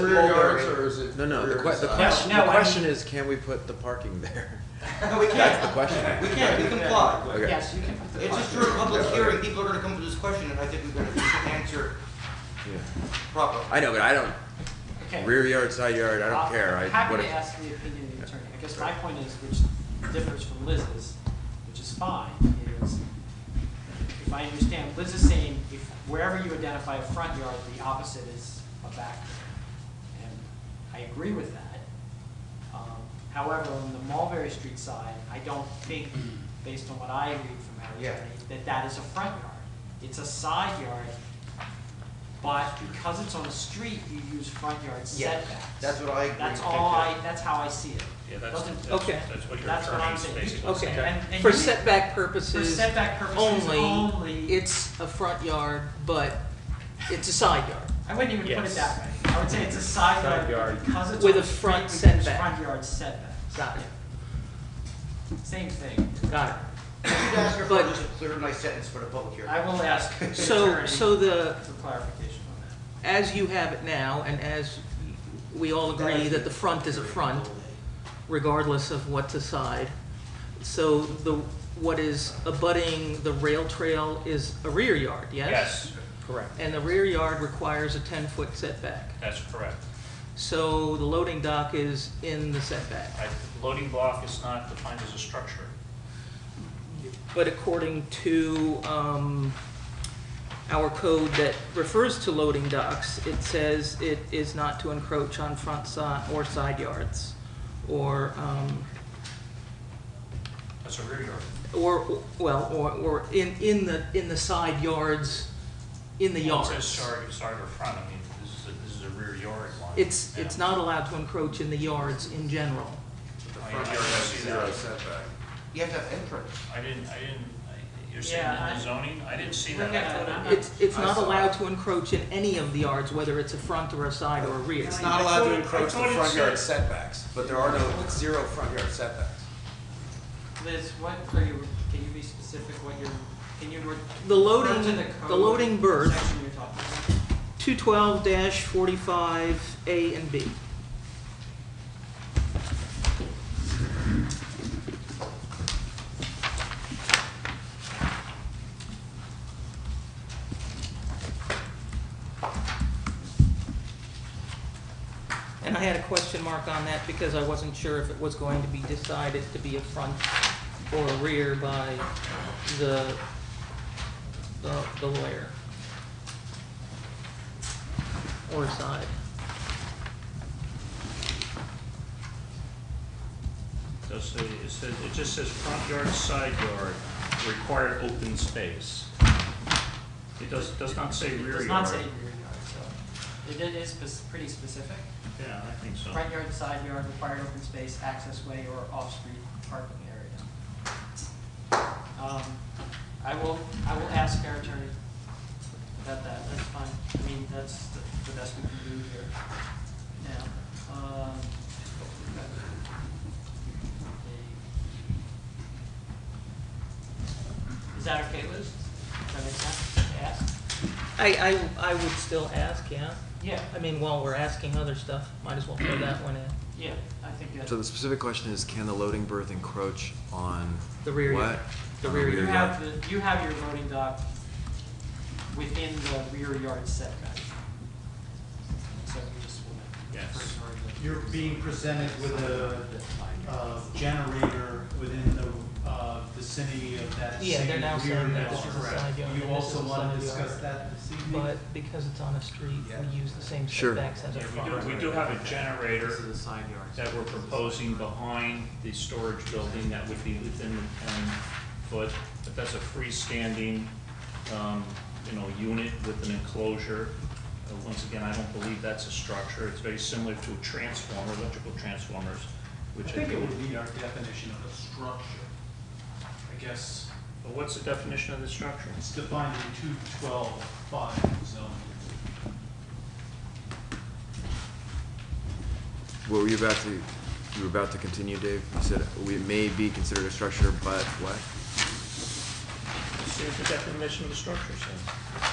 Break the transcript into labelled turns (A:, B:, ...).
A: rear yards or is it?
B: No, no, the
A: rear
B: que- the
A: side?
B: question,
C: no,
B: the
C: I
B: question is, can we put the parking there?
D: No, we
B: That's the
D: can't.
B: question.
D: We can't, we comply.
B: Okay.
C: Yes, you can put the
D: It's just
C: parking.
D: during public hearing, people are gonna come to this question, and I think we're gonna answer
B: Yeah.
D: properly.
B: I know, but I don't,
C: Okay.
B: rear yard, side yard, I don't care, I,
C: Uh, Happy
B: what
C: to
B: if,
C: ask the opinion of the attorney. I guess my point is, which differs from Liz's, which is fine, is if I understand, Liz is saying if wherever you identify a front yard, the opposite is a back yard. And I agree with that. Um, However, on the Mulberry Street side, I don't think, based on what I read from our
D: Yeah.
C: attorney, that that is a front yard. It's a side yard, but because it's on a street, you use front yard
D: Yeah,
C: setbacks.
D: that's what I agree.
C: That's
D: with.
C: all I, that's how I see it.
E: Yeah, that's,
C: Doesn't-
E: that's,
F: Okay.
E: that's what your
C: That's what I'm
E: attorney's
C: saying.
E: basically saying.
F: Okay,
C: And- and
F: for
C: you-
F: setback
C: For
F: purposes
C: setback purposes
F: only,
C: only,
F: it's a front yard, but it's a side yard.
C: I wouldn't even put it
E: Yes.
C: that way. I would say it's a side yard
E: Side yard.
C: because it's on
F: With
C: a
F: a
C: street,
F: front
C: we use
F: setback.
C: front yard setbacks.
F: Got it,
C: Same thing.
F: got it.
D: Could you ask her for
F: But-
D: just a clear, nice sentence for the public hearing?
C: I will ask the
F: So,
C: attorney
F: so
C: for
F: the,
C: clarification on that.
F: as you have it now, and as we all agree that the front is a front, regardless of what's aside, so the, what is abutting the rail trail is a rear yard, yes?
E: Yes,
B: correct.
F: And the rear yard requires a ten-foot setback.
E: that's correct.
F: So the loading dock is in the setback.
E: I, loading block is not defined as a structure.
F: But according to um, our code that refers to loading docks, it says it is not to encroach on front side or side yards, or, um,
E: That's a rear yard.
F: or, well, or, or in, in the, in the side yards, in the
E: Well, it
F: yards.
E: says Sorry, sorry or front, I mean, this is, a- this is a rear yard line.
F: It's,
E: Yeah.
F: it's not allowed to encroach in the yards in general.
A: The
E: I- I
A: front yard
E: don't
A: has
E: see
A: zero
E: that.
A: setback.
D: You have to have input.
E: I didn't, I didn't, I- you're saying
C: Yeah,
E: in
C: I-
E: the zoning? I didn't see
C: Look
E: that.
C: at that.
E: I thought it-
F: It's, it's
A: Uh, I
F: not
A: saw
F: allowed
A: it.
F: to encroach in any of the yards, whether it's a front or a side or a rear.
A: It's not allowed
E: thought
A: to
E: it- I
A: encroach the
E: thought it
A: front yard
E: said-
A: setbacks, but there are no, it's zero front yard setbacks.
C: Liz, what are you, can you be specific what you're, can you? re-
F: The loading-
C: refer to the
F: the
C: code
F: loading berth-
C: Section you're talking about.
F: 212-45A and B. And I had a question mark on that because I wasn't sure if it was going to be decided to be a front or a rear by the, the the lawyer or side.
E: Does say- it says, it just says front yard, side yard, required open space. It does, does not say
C: It
E: rear yard.
C: does not say rear yard, so it i- is spec- pretty specific.
E: Yeah, I think so.
C: Front yard, side yard, required open space, access way, or off-street parking area. Um, I will, I will ask our attorney about that, that's fine. I mean, that's the the best we can do here now. Um, okay. Is that okay, Liz? Does that make sense to ask?
F: I, I, I would still ask, yeah.
C: Yeah,
F: I mean, while we're asking other stuff, might as well throw that one in.
C: yeah, I think that's.
B: So the specific question is, can the loading berth encroach on
F: The rear yard.
B: what?
F: The
B: On
F: rear
C: You
F: yard.
C: have the, you have your loading dock within the rear yard setback. So you just want to.
E: Yes.
G: You're being presented with a, uh generator within the, uh, vicinity of that same rear
F: Yeah,
G: yard.
F: they're now saying that this
E: yard.
F: is a side yard.
G: You
F: and this
G: also
F: is a
G: wanna
F: side
G: discuss
F: yard.
G: that this evening?
F: But because it's on a street, we use the same
B: Sure.
F: setbacks as a
E: Yeah,
F: front.
E: we do, we do have a generator
C: the side yard.
E: that we're proposing behind the storage building that would be within the ten foot, but that's a freestanding, um, you know, unit with an enclosure. Uh, Once again, I don't believe that's a structure, it's very similar to a transformer, electrical transformers,
G: I
E: which I
G: think it
E: think,
G: would be our definition of a structure. I guess
E: but what's the definition of the structure?
G: it's defined in two twelve five zoning.
B: What were you about to, you were about to continue, Dave? You said we may be considered a structure, but what?
E: Let's See what the definition of the structure says.